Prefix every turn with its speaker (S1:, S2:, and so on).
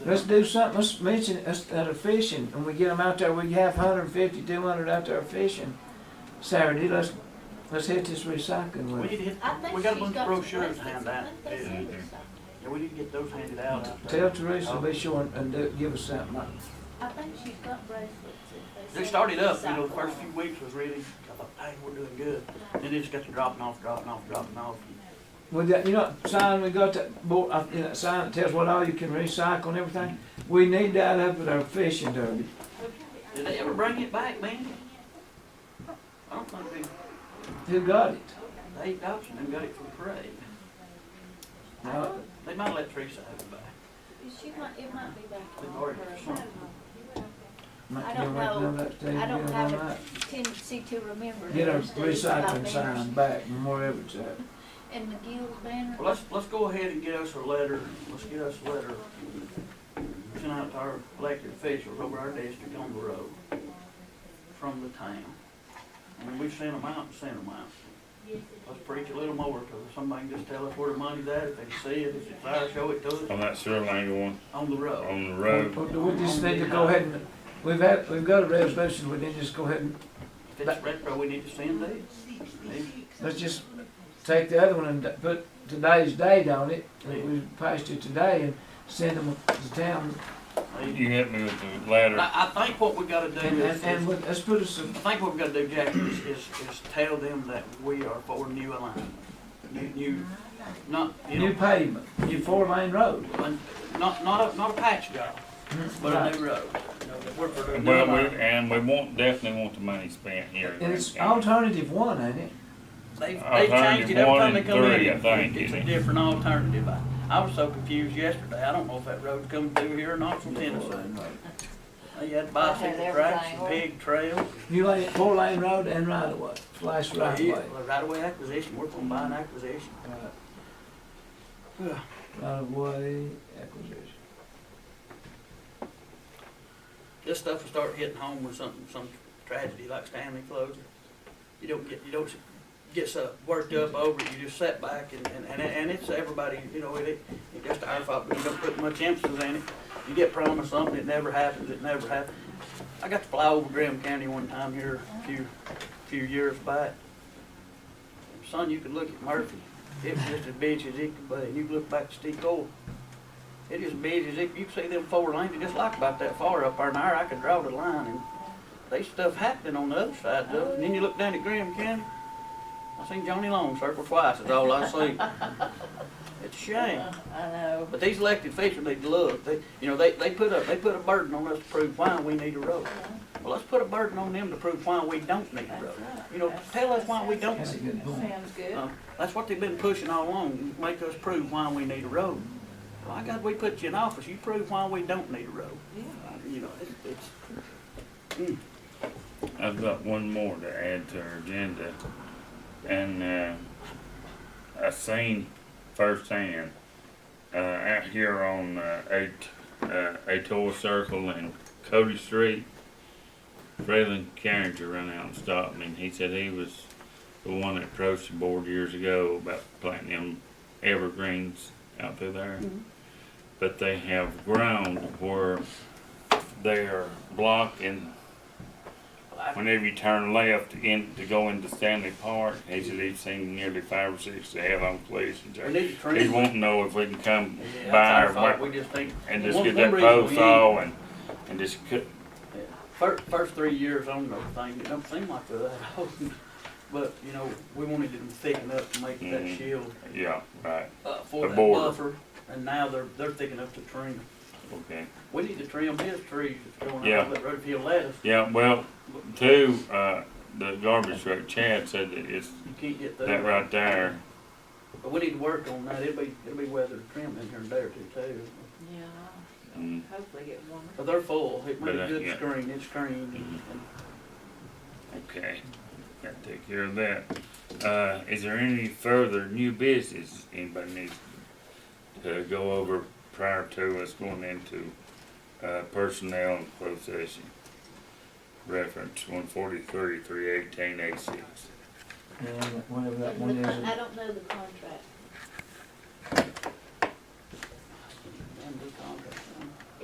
S1: Let's do something, let's mention us that are fishing, and we get them out there, we have 150, 200 out there fishing Saturday, let's, let's hit this recycling
S2: We
S1: with
S2: need to hit,
S3: I think
S2: we got a
S3: she's
S2: bunch of
S3: got some
S2: brochures to
S3: places.
S2: hand
S3: I
S2: out.
S3: think that's
S2: Yeah,
S3: it or something.
S2: Yeah, we need to get those handed out. out
S1: Tell
S2: there.
S1: Teresa, be sure and- and do, give us something.
S3: I think she's got bracelets. if
S2: They
S3: sell
S2: started up, you know, the
S3: recyclable
S2: first few
S3: ones.
S2: weeks was really, I thought, hey, we're doing good. Then they just got to dropping off, dropping off, dropping off.
S1: Well, that, you know, that sign, we got that board, uh, you know, that sign that tells what all you can recycle and everything, we need that up at our fishing derby.
S2: Did they ever bring it back, man? I don't think
S1: Who got it?
S2: they, they adopted and got it for parade.
S1: Now,
S2: They might let Teresa have it back.
S3: She might, it might be back
S2: They've
S3: on
S2: already
S3: her.
S2: shrunk.
S3: I
S1: might
S3: don't
S1: be waiting
S3: know.
S1: on that stage,
S3: I
S1: you
S3: don't
S1: know,
S3: have
S1: they
S3: a
S1: might
S3: Tendency to remember.
S1: Get our
S3: those days about
S1: recycling
S3: banners
S1: sign back, and wherever it's at.
S3: And the guild banner.
S2: Well, let's, let's go ahead and get us a letter, let's get us a letter. Sent out to our elected officials over our district on the road from the town. And we send them out and send them out. Let's preach a little more, cause if somebody can just tell us where the money's at, if they can see it, if it's there, show it to us,
S4: on that sewer lane going
S2: on the road.
S4: on the
S1: Well,
S4: road.
S1: We just need to go ahead and, we've had, we've got a resolution, we need to just go ahead and,
S2: If it's retro, we need to send it.
S1: let's just take the other one and put today's date on it, that we passed it today, and send them to town.
S2: Maybe.
S4: You hit me with the ladder.
S2: I, I think what we gotta do
S1: And,
S2: is,
S1: and, and
S2: I
S1: let- let's put us, a-
S2: think what we gotta do, Jack, is, is, is tell them that we are for new alignment. New, new, not, you know.
S1: new pavement, new four-lane road.
S2: Not, not a, not a patch job, but a new road. We're for the new
S4: Well,
S2: line.
S4: we, and we want, definitely want the money spent here.
S1: And it's alternative one, ain't it?
S2: They've,
S4: I
S2: they've changed it
S4: think
S2: every
S4: one
S2: time they
S4: and
S2: come
S4: three, I
S2: in.
S4: think,
S2: It's a
S4: isn't it?
S2: different alternative. I, I was so confused yesterday. I don't know if that road comes through here or not from Tennessee. They had bicycle
S3: Has
S2: tracks and
S3: everything.
S2: pig trails.
S1: New lane, four-lane road and right-of-way, flash right-of-way,
S2: Well, Right away acquisition, we're gonna buy an acquisition. Yeah.
S1: right-of-way acquisition.
S2: This stuff will start hitting home with something, some tragedy like Stanley closure. You don't get, you don't get so worked up over it, you just sit back and, and, and, and it's everybody, you know, it, it it's just our fault, but we don't put much emphasis in it. You get promised something, it never happens, it never happens. I got to fly over Graham County one time here a few, few years back. Son, you could look at Murphy, it was just as busy as it could be, and you could look back to Steve Cole. It is busy as it, you can see them four lanes, just like about that far up there in there, I could draw the line and they stuff happening on the other side of it. And then you look down at Graham County, I seen Johnny Long circle twice, is all I see. It's a shame.
S3: I know.
S2: But these elected officials need to look, they, you know, they, they put a, they put a burden on us to prove why we need a road.
S3: Uh-huh.
S2: Well, let's put a burden on them to prove why we don't need a road. You know, tell us why we don't
S1: That's a good point.
S3: Sounds good.
S2: uh, That's what they've been pushing all along, make us prove why we need a road. Why God, we put you in office, you prove why we don't need a road. Uh,
S3: Yeah.
S2: You know, it's, it's,
S4: I've got one more to add to our agenda. And, uh, I seen firsthand, uh, out here on, uh, eight, uh, Atoll Circle and Cody Street. Freeland Carringer run out and stopped me and he said he was the one that approached the board years ago about planting them evergreens out through there. But they have ground where they are blocking Whenever you turn left in to go into Stanley Park, he said he's seen nearly five or six they have on police. and
S2: we
S4: so
S2: need to
S4: He
S2: train.
S4: won't know if we can come
S2: Yeah, that's
S4: by
S2: our
S4: or
S2: fault.
S4: what,
S2: We just think.
S4: and just
S2: one-
S4: get
S2: one
S4: that
S2: reason we
S4: post
S2: ain't-
S4: saw and, and just cut.
S2: First, first three years on the thing, it don't seem like that, but, you know, we wanted to thicken up to make that
S4: Mhm.
S2: shield,
S4: Yeah, right,
S2: uh, for
S4: A
S2: that
S4: border.
S2: buffer. And now they're, they're thickening up the trim.
S4: okay.
S2: We need to trim his trees that's going
S4: Yeah.
S2: out, but if he'll let us,
S4: Yeah, well, two, uh, the garbage truck, Chad said that it's
S2: you can't get through.
S4: that right there.
S2: But we need to work on that, it'll be, it'll be weather trim in here and there too, too.
S3: Yeah,
S4: Mm,
S3: hopefully get warmer.
S2: But they're full, it made
S4: But,
S2: a
S4: uh,
S2: good
S4: yeah. Mm-hmm.
S2: screen, it's screened.
S4: Okay, gotta take care of that. Uh, is there any further new business anybody needs to go over prior to us going into, uh, personnel and closed session? Reference one forty-three, three eighteen, eight six.
S1: And whatever that
S3: And
S1: one
S3: the
S1: is.
S3: con- I don't know the contract.